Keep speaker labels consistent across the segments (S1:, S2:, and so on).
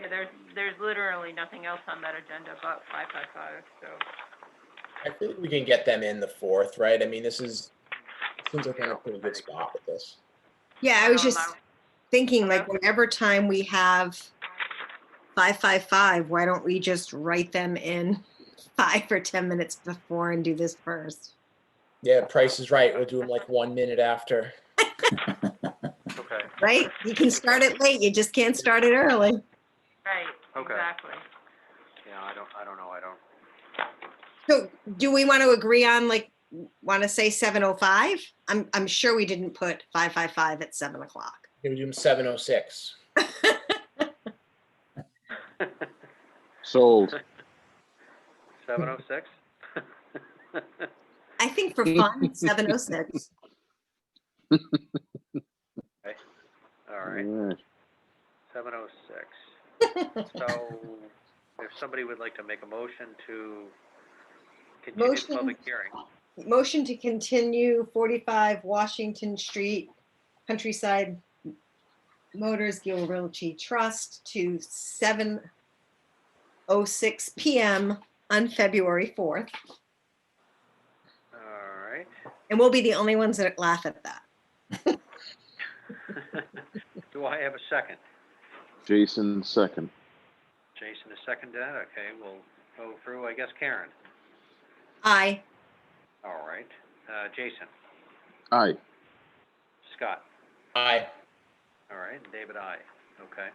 S1: Yeah, there's, there's literally nothing else on that agenda but five five five, so.
S2: I think we can get them in the fourth, right? I mean, this is, seems like we're in a pretty good spot with this.
S3: Yeah, I was
S1: don't
S3: just
S1: know.
S3: thinking, like,
S1: Um, Okay.
S3: whenever time we have five, five, five, why don't we just write them in five or 10 minutes before and do this first?
S2: Yeah, Price is right. We'll do them like one minute after.
S4: Okay,
S3: Right? You can start it late, you just can't start it early.
S1: Right,
S4: Okay.
S1: exactly.
S4: yeah, I don't, I don't know, I don't,
S3: So do we want to agree on, like, want to say 7:05? I'm, I'm sure we didn't put 555 at 7 o'clock.
S2: Yeah, We do them seven oh six.
S5: Sold.
S4: seven oh six?
S3: I think for fun, 7:06.
S4: All right,
S5: Alright.
S4: seven oh six. So, if somebody would like to make a motion to continue the
S3: Motion.
S4: public hearing,
S3: Motion to continue 45 Washington Street Countryside Motors Gill Realty Trust to 7:06 PM on February 4th.
S4: all right.
S3: And we'll be the only ones that laugh at that.
S4: Do I have a second?
S5: Jason second.
S4: Jason has seconded that, okay, we'll go through, I guess, Karen,
S3: Aye.
S4: all right. Uh, Jason,
S5: Aye.
S4: Scott,
S2: Aye.
S4: all right, and David, I, okay.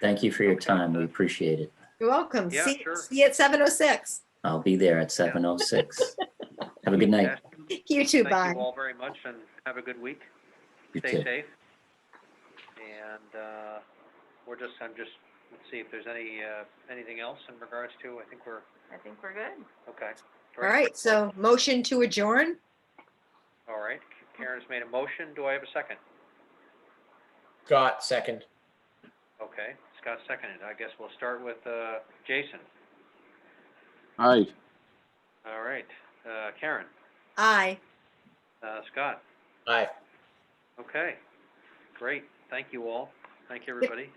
S6: Thank you for your time. We appreciate it.
S3: You're welcome.
S4: Yeah,
S3: See,
S4: sure.
S3: see you at 7:06.
S6: I'll be there at seven oh six. Have a good night.
S4: Yes,
S3: You too, bye.
S4: Thank you all very much and have a good week.
S6: You
S4: Stay
S6: too.
S4: safe. And uh, we're just, I'm just, let's see if there's any, uh, anything else in regards to, I think we're,
S1: I think we're good.
S4: okay.
S3: All right, so motion to adjourn?
S4: All right, Karen's made a motion. Do I have a second?
S2: Scott, second.
S4: Okay, Scott seconded. I guess we'll start with uh, Jason.
S5: Aye.
S4: All right, uh, Karen,
S3: Aye.
S4: uh, Scott.
S2: Aye.
S4: Okay, great. Thank you all. Thank you, everybody.